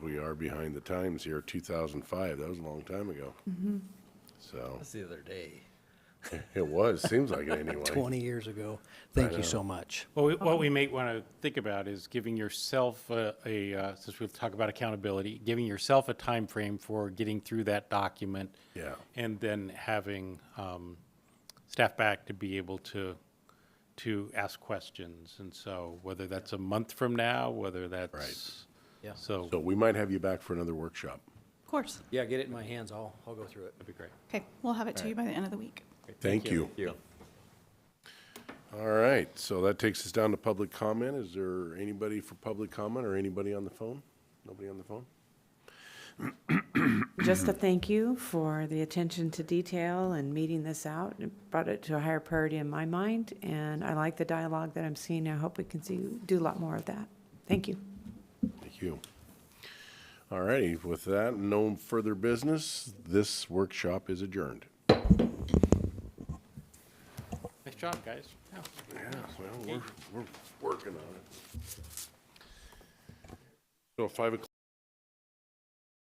are behind the times here, 2005, that was a long time ago. So, That's the other day. it was, seems like it anyway. 20 years ago. Thank you so much. Well, we- what we may want to think about is giving yourself a- a, uh, since we've talked about accountability, giving yourself a time frame for getting through that document. Yeah. And then having um, staff back to be able to, to ask questions. And so whether that's a month from now, whether that's. Yeah. So, So we might have you back for another workshop. Of course. Yeah, get it in my hands. I'll, I'll go through it. that'd be great. Okay, we'll have it to you by the end of the week. Thank you. You. All right, so that takes us down to public comment. Is there anybody for public comment or anybody on the phone? Nobody on the phone? Just a thank you for the attention to detail and meeting this out. It brought it to a higher priority in my mind, and I like the dialogue that I'm seeing. I hope we can see, do a lot more of that. Thank you. Thank you. All righty, with that, no further business. This workshop is adjourned. Nice job, guys. Yeah. Yeah, well, we're, we're working on it. So five o'clock